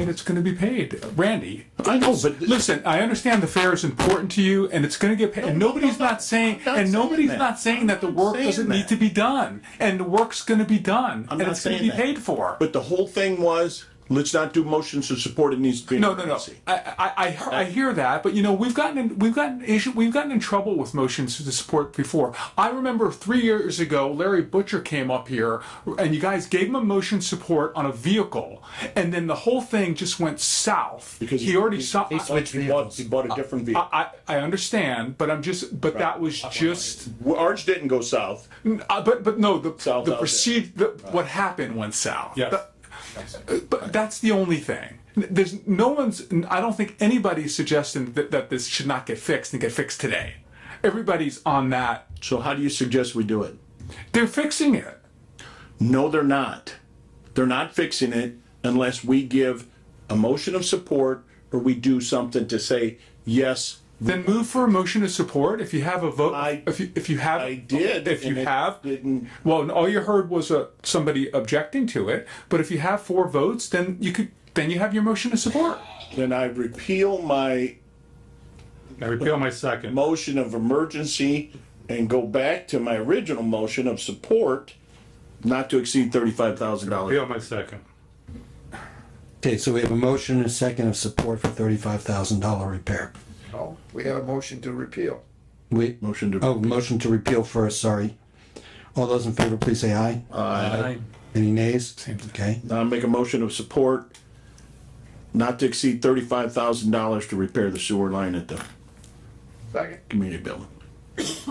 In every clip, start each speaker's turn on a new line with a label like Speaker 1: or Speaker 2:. Speaker 1: and it's going to be paid. Randy,
Speaker 2: I know, but-
Speaker 1: listen, I understand the fair is important to you, and it's going to get paid. and nobody's not saying,
Speaker 2: not
Speaker 1: and
Speaker 2: saying
Speaker 1: nobody's
Speaker 2: that.
Speaker 1: not saying that the
Speaker 2: I'm
Speaker 1: work
Speaker 2: saying
Speaker 1: doesn't need
Speaker 2: that.
Speaker 1: to be done, and the work's going to be done,
Speaker 2: I'm
Speaker 1: and
Speaker 2: not
Speaker 1: it's going to
Speaker 2: saying
Speaker 1: be
Speaker 2: that.
Speaker 1: paid for.
Speaker 2: But the whole thing was, let's not do motions to support, it needs to be an
Speaker 1: No, no, no.
Speaker 2: emergency.
Speaker 1: I, I, I, hear- I hear that, but you know, we've gotten in, we've gotten issue, we've gotten in trouble with motions to support before. I remember three years ago, Larry Butcher came up here, and you guys gave him a motion support on a vehicle, and then the whole thing just went south
Speaker 2: Because
Speaker 1: he already saw.
Speaker 2: He switched vehicles. Uh, He bought a different vehicle.
Speaker 1: I, I, I understand, but I'm just, but that was just,
Speaker 2: Well, uh, Ours didn't go south.
Speaker 1: uh, but but no, the
Speaker 2: South
Speaker 1: the
Speaker 2: out
Speaker 1: perceived the, what happened went south.
Speaker 3: Yes.
Speaker 1: But- uh, But that's the only thing. There's no one's. I don't think anybody's suggesting that, that this should not get fixed and get fixed today. Everybody's on that.
Speaker 2: So how do you suggest we do it?
Speaker 1: They're fixing it.
Speaker 2: No, they're not. They're not fixing it unless we give a motion of support or we do something to say, yes,
Speaker 1: Then move for a motion of support if you have a vote.
Speaker 2: I-
Speaker 1: if you if you have,
Speaker 2: I did,
Speaker 1: If you
Speaker 2: and it
Speaker 1: have,
Speaker 2: didn't-
Speaker 1: well, and all you heard was uh somebody objecting to it. But if you have four votes, then you could. Then you have your motion of support.
Speaker 2: then I repeal my
Speaker 3: I repeal my second.
Speaker 2: motion of emergency and go back to my original motion of support not to exceed thirty-five thousand dollars.
Speaker 3: Repeal my second.
Speaker 4: Okay, so we have a motion and a second of support for thirty-five thousand dollar repair.
Speaker 5: No, we had a motion to repeal.
Speaker 4: We,
Speaker 2: Motion to-
Speaker 4: oh, motion to repeal first, sorry. All those in favor, please say aye. Aye. Any nays? Okay,
Speaker 2: Now I make a motion of support not to exceed thirty-five thousand dollars to repair the sewer line at the
Speaker 5: Second?
Speaker 2: community building.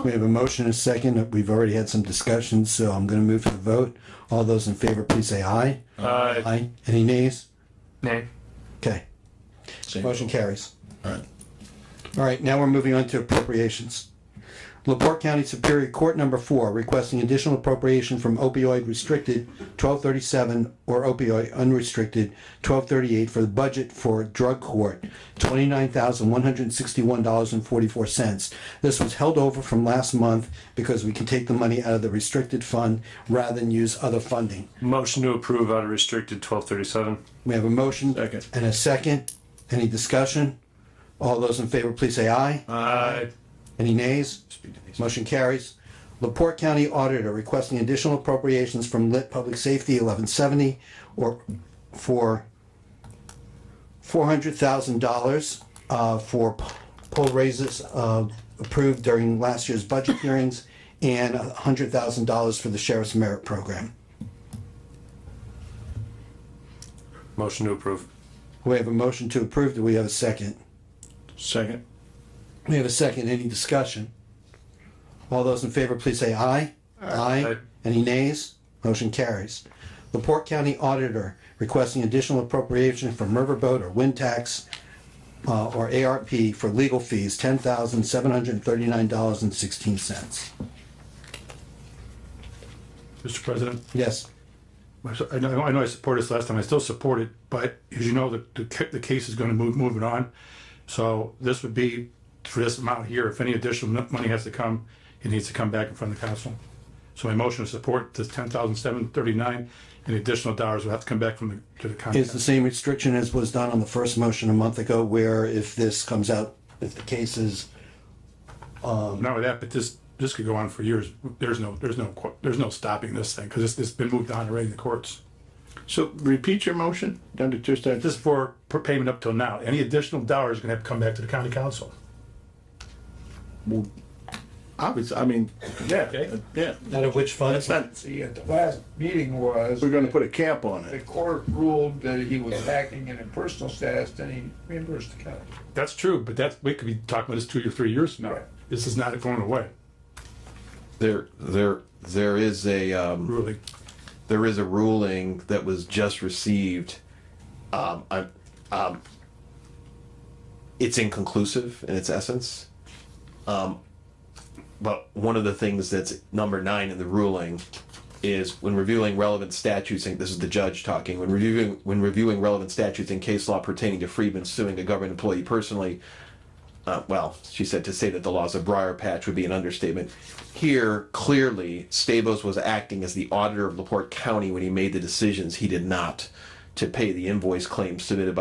Speaker 4: we have a motion and a second. We've already had some discussions, so I'm gonna move to the vote. All those in favor, please say aye. Aye. Aye. Any nays?
Speaker 1: Nay.
Speaker 4: Okay,
Speaker 2: Same.
Speaker 4: motion carries.
Speaker 2: All right.
Speaker 4: All right, now we're moving on to appropriations. Laporte County Superior Court Number Four requesting additional appropriation from opioid restricted twelve thirty-seven or opioid unrestricted twelve thirty-eight for the budget for drug court, twenty-nine thousand one hundred and sixty-one dollars and forty-four cents. This was held over from last month because we can take the money out of the restricted fund rather than use other funding.
Speaker 6: Motion to approve out of restricted twelve thirty-seven.
Speaker 4: We have a motion
Speaker 2: Second.
Speaker 4: and a second. Any discussion? All those in favor, please say aye.
Speaker 6: Aye.
Speaker 4: Any nays? Motion carries. Laporte County Auditor requesting additional appropriations from Lit Public Safety eleven seventy or for four hundred thousand dollars uh, for p- poll raises uh, approved during last year's budget hearings and hundred thousand dollars for the Sheriff's Merit Program.
Speaker 6: Motion to approve.
Speaker 4: We have a motion to approve. Do we have a second?
Speaker 2: Second.
Speaker 4: We have a second. Any discussion? All those in favor, please say aye. Aye. Any nays? Motion carries. Laporte County Auditor requesting additional appropriation from Riverboat or Wind Tax uh, or ARP for legal fees, ten thousand seven hundred and thirty-nine dollars and sixteen cents.
Speaker 3: Mr. President,
Speaker 4: Yes,
Speaker 3: I know, I know I supported this last time, I still support it, but as you know, the, the, ca- the case is gonna move, moving on. So this would be for this amount here, if any additional mon- money has to come, it needs to come back in front of the council. So my motion to support this ten thousand seven thirty-nine, and additional dollars will have to come back from the, to the
Speaker 4: is the
Speaker 3: council.
Speaker 4: same restriction as was done on the first motion a month ago where if this comes out, if the case is,
Speaker 3: Not with that, but this, this could go on for years, there's no, there's no, qu- there's no stopping this thing, cause it's, it's been moved on already in the courts.
Speaker 2: So repeat your motion down to two steps.
Speaker 3: This is for per- payment up till now. Any additional dollars gonna have to come back to the county council.
Speaker 2: Obviously, I mean, yeah,
Speaker 3: Okay.
Speaker 2: yeah.
Speaker 4: out of which fund?
Speaker 2: That's not,
Speaker 5: See, at the last meeting was,
Speaker 2: we're gonna put a cap on
Speaker 5: the
Speaker 2: it.
Speaker 5: court ruled that he was acting in a personal status, then he reimbursed the county.
Speaker 3: That's true, but that's, we could be talking about this two or three years from now.
Speaker 5: Right.
Speaker 3: This is not going away,
Speaker 7: There, there, there is a, um,
Speaker 3: really.
Speaker 7: there is a ruling that was just received. Um, I, um, it's inconclusive in its essence. Um, but one of the things that's number nine in the ruling is when reviewing relevant statutes, and this is the judge talking, when reviewing, when reviewing relevant statutes and case law pertaining to freedmen suing a government employee personally, uh, well, she said to say that the laws of Briar Patch would be an understatement. Here, clearly, Stabos was acting as the auditor of LaPorte County when he made the decisions he did not to pay the invoice claims submitted by.